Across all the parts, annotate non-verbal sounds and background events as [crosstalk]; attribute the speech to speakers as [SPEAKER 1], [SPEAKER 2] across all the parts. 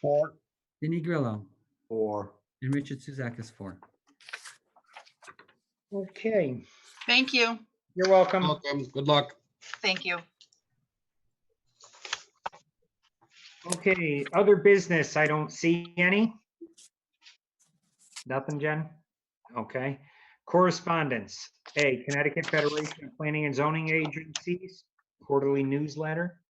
[SPEAKER 1] Four.
[SPEAKER 2] Vinnie Grillo,
[SPEAKER 1] Four.
[SPEAKER 2] and Richard Suzak is four.
[SPEAKER 3] Okay,
[SPEAKER 4] Thank you.
[SPEAKER 3] you're welcome.
[SPEAKER 1] Welcome. Good luck.
[SPEAKER 4] Thank you.
[SPEAKER 3] Okay, other business, I don't see any. Nothing, Jen? Okay. Correspondence, A, Connecticut Federation of Planning and Zoning Agencies Quarterly Newsletter.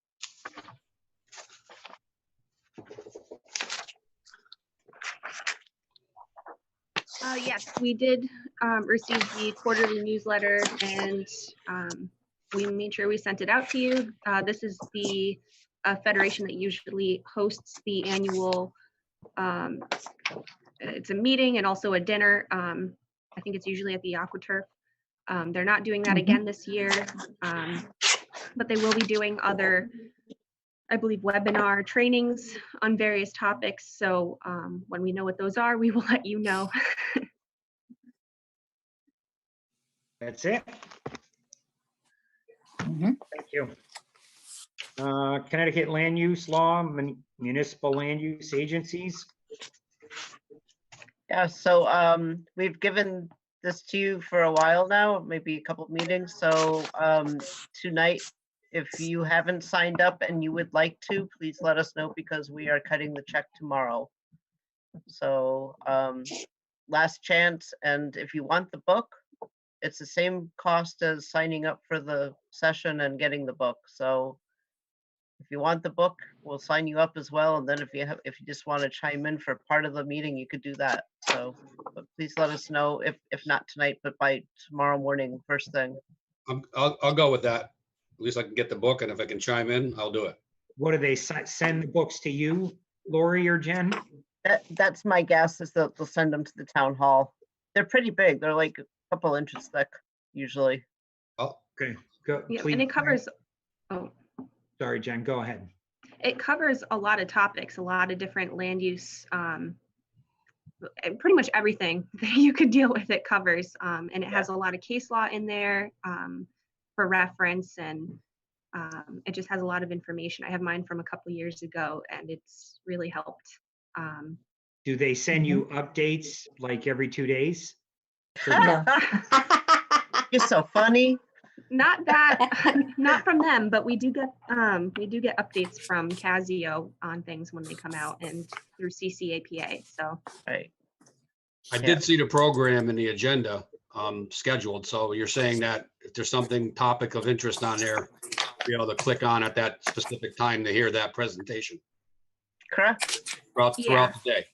[SPEAKER 5] Uh, yes, we did, um, receive the quarterly newsletter and, um, we made sure we sent it out to you. Uh, this is the, uh, federation that usually hosts the annual, um, it's a meeting and also a dinner. Um, I think it's usually at the AquaTurf. Um, they're not doing that again this year, um, but they will be doing other, I believe, webinar trainings on various topics. So, um, when we know what those are, we will [laughs] let you know.
[SPEAKER 3] That's it?
[SPEAKER 4] Mhm.
[SPEAKER 3] Thank you. Uh, Connecticut Land Use Law, Mun- Municipal Land Use Agencies.
[SPEAKER 6] Yeah, so um, we've given this to you for a while now, maybe a couple meetings, so um, tonight, if you haven't signed up and you would like to, please let us know because we are cutting the check tomorrow. So um, last chance, and if you want the book, it's the same cost as signing up for the session and getting the book, so if you want the book, we'll sign you up as well. And then if you have, if you just want to chime in for part of the meeting, you could do that. So, but please let us know if, if not tonight, but by tomorrow morning, first thing.
[SPEAKER 7] I'm- I'll, I'll go with that. At least I can get the book and if I can chime in, I'll do it.
[SPEAKER 3] What do they, si- send the books to you, Lori or Jen?
[SPEAKER 6] That, that's my guess is that they'll send them to the town hall. They're pretty big. They're like a couple inches thick usually.
[SPEAKER 7] I'll,
[SPEAKER 3] Go-
[SPEAKER 5] Yeah,
[SPEAKER 3] please-
[SPEAKER 5] and it covers, oh,
[SPEAKER 3] Sorry, Jen, go ahead.
[SPEAKER 5] it covers a lot of topics, a lot of different land use, um, eh, pretty much everything [laughs] that you could deal with it covers. Um, and it has a lot of case law in there, um, for reference and, um, it just has a lot of information. I have mine from a couple years ago and it's really helped. Um,
[SPEAKER 3] Do they send you
[SPEAKER 5] Mm-hmm.
[SPEAKER 3] updates like every two days?
[SPEAKER 6] You're so funny.
[SPEAKER 5] not that, [laughs] not from them, but we do get, um, we do get updates from Casio on things when they come out and through CCAPA, so.
[SPEAKER 6] Right.
[SPEAKER 7] I
[SPEAKER 6] Yeah.
[SPEAKER 7] did see the program and the agenda um, scheduled, so you're saying that if there's something topic of interest on there, be able to click on at that specific time to hear that presentation
[SPEAKER 6] Correct?
[SPEAKER 7] throughout,
[SPEAKER 5] Yeah.
[SPEAKER 7] throughout the day.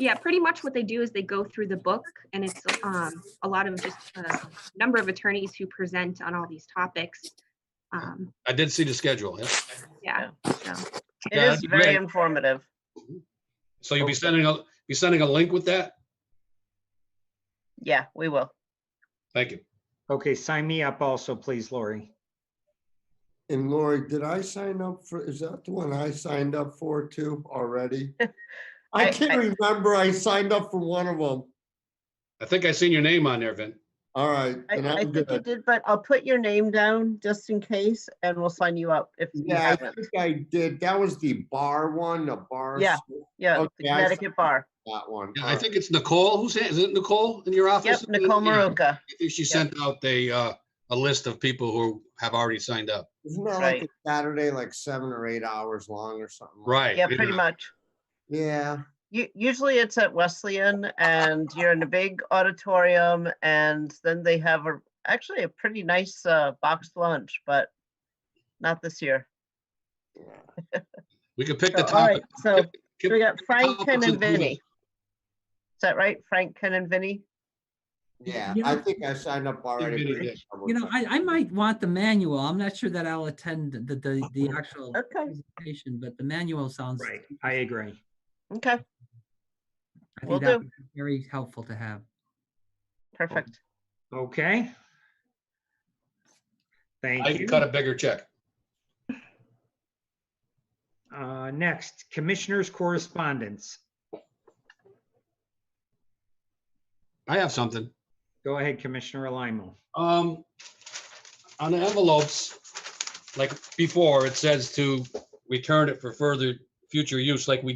[SPEAKER 5] Yeah, pretty much what they do is they go through the book and it's um, a lot of just a number of attorneys who present on all these topics. Um,
[SPEAKER 7] I did see the schedule. yeah.
[SPEAKER 5] yeah,
[SPEAKER 6] It
[SPEAKER 7] Yeah,
[SPEAKER 6] is
[SPEAKER 7] that'd be
[SPEAKER 6] very
[SPEAKER 7] great.
[SPEAKER 6] informative.
[SPEAKER 7] So you'll be sending a, be sending a link with that?
[SPEAKER 6] Yeah, we will.
[SPEAKER 7] Thank you.
[SPEAKER 3] Okay, sign me up also, please, Lori.
[SPEAKER 1] And Lori, did I sign up for, is that the one I signed up for too already? I
[SPEAKER 6] [laughs] I-
[SPEAKER 1] can't remember. I signed up for one of them.
[SPEAKER 7] I think I seen your name on there, Vin.
[SPEAKER 1] All right.
[SPEAKER 6] I,
[SPEAKER 1] then
[SPEAKER 6] I
[SPEAKER 1] I'm
[SPEAKER 6] think you
[SPEAKER 1] good.
[SPEAKER 6] did, but I'll put your name down just in case and we'll sign you up if you
[SPEAKER 1] Yeah, I
[SPEAKER 6] haven't.
[SPEAKER 1] think I did. That was the bar one, the bar.
[SPEAKER 6] Yeah.
[SPEAKER 1] school,
[SPEAKER 7] Oh,
[SPEAKER 6] Yeah, the
[SPEAKER 1] Okay, I see.
[SPEAKER 6] Connecticut Bar.
[SPEAKER 1] That one.
[SPEAKER 7] Yeah,
[SPEAKER 1] All
[SPEAKER 7] I
[SPEAKER 1] right.
[SPEAKER 7] think it's Nicole who's, is it Nicole in your
[SPEAKER 6] Yep,
[SPEAKER 7] office?
[SPEAKER 6] Nicole
[SPEAKER 7] Yeah,
[SPEAKER 6] Maruka.
[SPEAKER 7] I think She
[SPEAKER 6] Yep.
[SPEAKER 7] sent out a, uh, a list of people who have already signed up.
[SPEAKER 1] Isn't that like a
[SPEAKER 6] Right.
[SPEAKER 1] Saturday, like seven or eight hours long or something? like-
[SPEAKER 7] Right.
[SPEAKER 6] Yeah, pretty much.
[SPEAKER 1] Yeah.
[SPEAKER 6] U- Usually it's at Wesleyan and you're in a big auditorium and then they have a, actually a pretty nice uh, boxed lunch, but not this year.
[SPEAKER 1] yeah.
[SPEAKER 7] We could pick the
[SPEAKER 6] So, All right,
[SPEAKER 7] topic.
[SPEAKER 6] so
[SPEAKER 7] Pick-
[SPEAKER 6] we got
[SPEAKER 7] pick the
[SPEAKER 6] Frank,
[SPEAKER 7] topics
[SPEAKER 6] Ken and
[SPEAKER 7] do that.
[SPEAKER 6] Vinny. Is that right? Frank, Ken and Vinny?
[SPEAKER 1] Yeah,
[SPEAKER 2] You
[SPEAKER 1] I
[SPEAKER 2] know-
[SPEAKER 1] think I signed up already.
[SPEAKER 7] really
[SPEAKER 1] for
[SPEAKER 7] did.
[SPEAKER 1] double
[SPEAKER 2] You know,
[SPEAKER 1] check.
[SPEAKER 2] I, I might want the manual. I'm not sure that I'll attend the, the,
[SPEAKER 1] [laughs]
[SPEAKER 2] the actual
[SPEAKER 6] Okay,
[SPEAKER 2] presentation, but the manual sounds.
[SPEAKER 3] Right, I agree.
[SPEAKER 6] okay,
[SPEAKER 2] I
[SPEAKER 6] will
[SPEAKER 2] think that
[SPEAKER 6] do.
[SPEAKER 2] would be very helpful to have.
[SPEAKER 6] perfect.
[SPEAKER 3] Okay.
[SPEAKER 7] I
[SPEAKER 3] Thank
[SPEAKER 7] can
[SPEAKER 3] you.
[SPEAKER 7] cut a bigger check.
[SPEAKER 3] Uh, next, Commissioners' Correspondence.
[SPEAKER 7] I have something.
[SPEAKER 3] Go ahead, Commissioner Alamo.
[SPEAKER 7] Um, on the envelopes, like before, it says to return it for further future use, like we